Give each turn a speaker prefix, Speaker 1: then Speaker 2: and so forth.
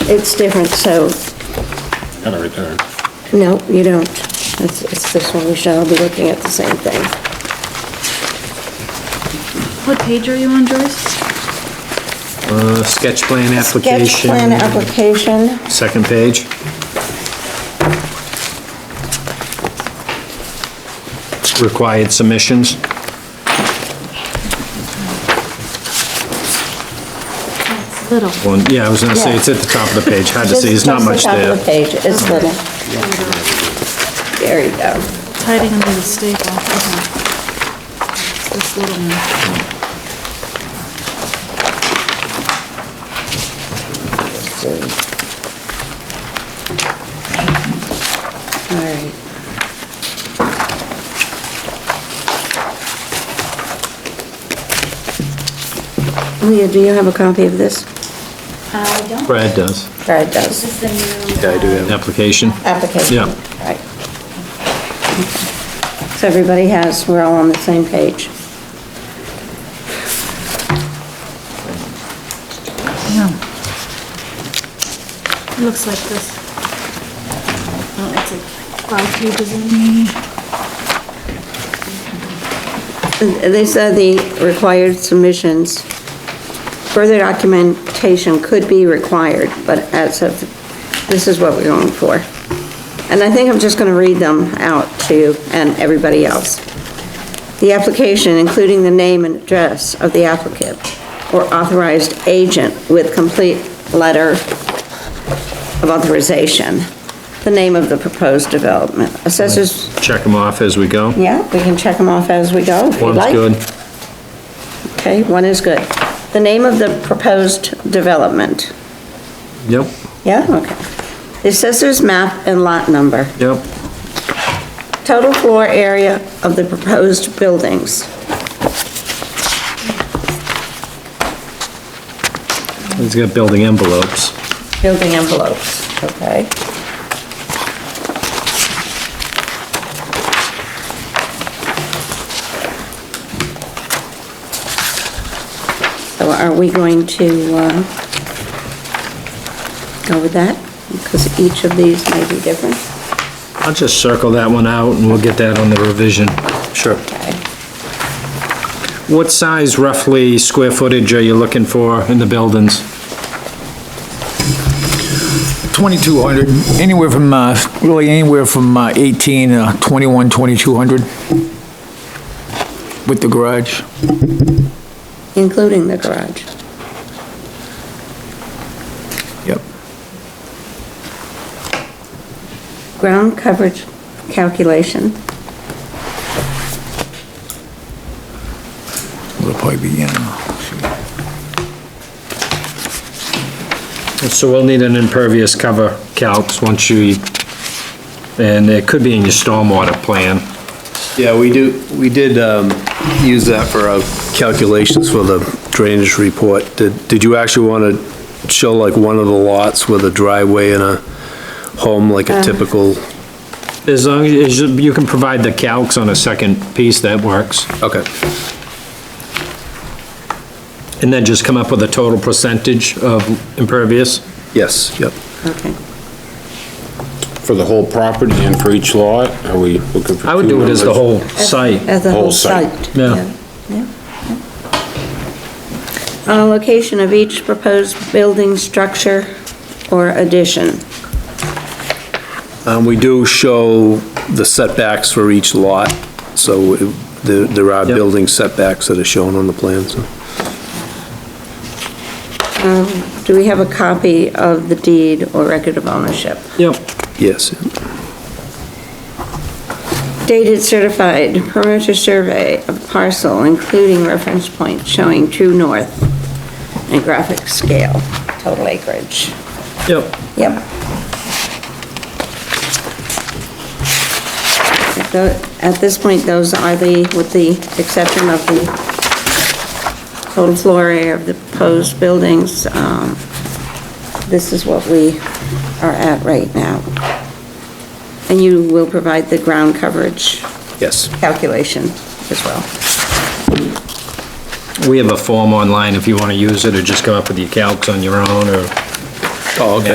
Speaker 1: it's different, so,
Speaker 2: Kind of return.
Speaker 1: no, you don't. It's, it's this one, we shall be looking at the same thing.
Speaker 3: What page are you on, Joyce?
Speaker 4: Uh, Sketch plan
Speaker 1: Sketch plan
Speaker 4: application,
Speaker 1: application,
Speaker 4: second page. Required submissions.
Speaker 3: Little.
Speaker 4: Well, yeah, I was gonna say, it's at the top of the page, hard to
Speaker 1: just
Speaker 4: see, it's not
Speaker 1: just the
Speaker 4: much
Speaker 1: top of the
Speaker 4: there.
Speaker 1: page, it's little. There you go.
Speaker 3: It's hiding under the staple. Okay. It's This little one.
Speaker 1: All right. Leah, do you have a copy of this?
Speaker 3: Uh,
Speaker 5: I don't.
Speaker 4: Brad does.
Speaker 1: Brad
Speaker 5: Is
Speaker 1: does.
Speaker 5: this the new? uh,
Speaker 4: Application.
Speaker 1: Application.
Speaker 4: Yeah.
Speaker 1: Right. So everybody has, we're all on the same page.
Speaker 3: Yeah. It looks like this. Oh, it's like five pages in.
Speaker 1: These are the required submissions. Further documentation could be required, but as of, this is what we're going for. And I think I'm just gonna read them out to you and everybody else. The application, including the name and address of the applicant or authorized agent with complete letter of authorization, the name of the proposed development. Assessors,
Speaker 4: Check them off as we go.
Speaker 1: yeah, we can check them off as we go if you'd
Speaker 4: One's
Speaker 1: like.
Speaker 4: good.
Speaker 1: Okay, one is good. The name of the proposed development,
Speaker 4: Yep,
Speaker 1: yeah, okay. The assessor's map and lot number,
Speaker 4: yep,
Speaker 1: total floor area of the proposed buildings.
Speaker 4: he's got building envelopes.
Speaker 1: Building envelopes, okay. So are we going to uh, go with that? Because each of these may be different.
Speaker 4: I'll just circle that one out and we'll get that on the revision. Sure.
Speaker 1: Okay.
Speaker 4: What size roughly square footage are you looking for in the buildings?
Speaker 6: 2,200, anywhere from, uh, really anywhere from uh, 18, uh, 21, 2,200 with the garage.
Speaker 1: Including the garage.
Speaker 6: Yep.
Speaker 1: Ground coverage calculation,
Speaker 6: It'll probably be, you know,
Speaker 4: So we'll need an impervious cover calcs once you, and it could be in your stormwater plan.
Speaker 7: Yeah, we do, we did um, use that for our calculations for the drainage report. Did Did you actually want to show like one of the lots with a driveway and a home, like a typical?
Speaker 4: As long as you- you can provide the calcs on a second piece, that works.
Speaker 7: Okay,
Speaker 4: And then just come up with a total percentage of impervious?
Speaker 7: yes, yep.
Speaker 1: okay.
Speaker 2: For the whole property and for each lot, are we looking for?
Speaker 4: I would
Speaker 2: two
Speaker 4: do it as the
Speaker 2: numbers?
Speaker 4: whole site.
Speaker 1: As a whole
Speaker 2: Whole site.
Speaker 1: site.
Speaker 4: Yeah.
Speaker 1: yeah, yeah. Uh, location of each proposed building structure or addition.
Speaker 7: Um, We do show the setbacks for each lot, so it- there there are
Speaker 4: Yep.
Speaker 7: building setbacks that are shown on the plan, so.
Speaker 1: Um, Do we have a copy of the deed or record of ownership?
Speaker 4: Yep.
Speaker 7: Yes,
Speaker 1: Dated certified perimeter survey of parcel, including reference point showing true north and graphic scale, total acreage.
Speaker 4: Yep.
Speaker 1: Yep. Tho- At this point, those are the, with the exception of the total floor area of the proposed buildings, um, this is what we are at right now. And you will provide the ground coverage
Speaker 7: yes.
Speaker 1: calculation as well.
Speaker 4: We have a form online if you want to use it, or just come up with your calcs on your own, or...
Speaker 7: Oh, okay.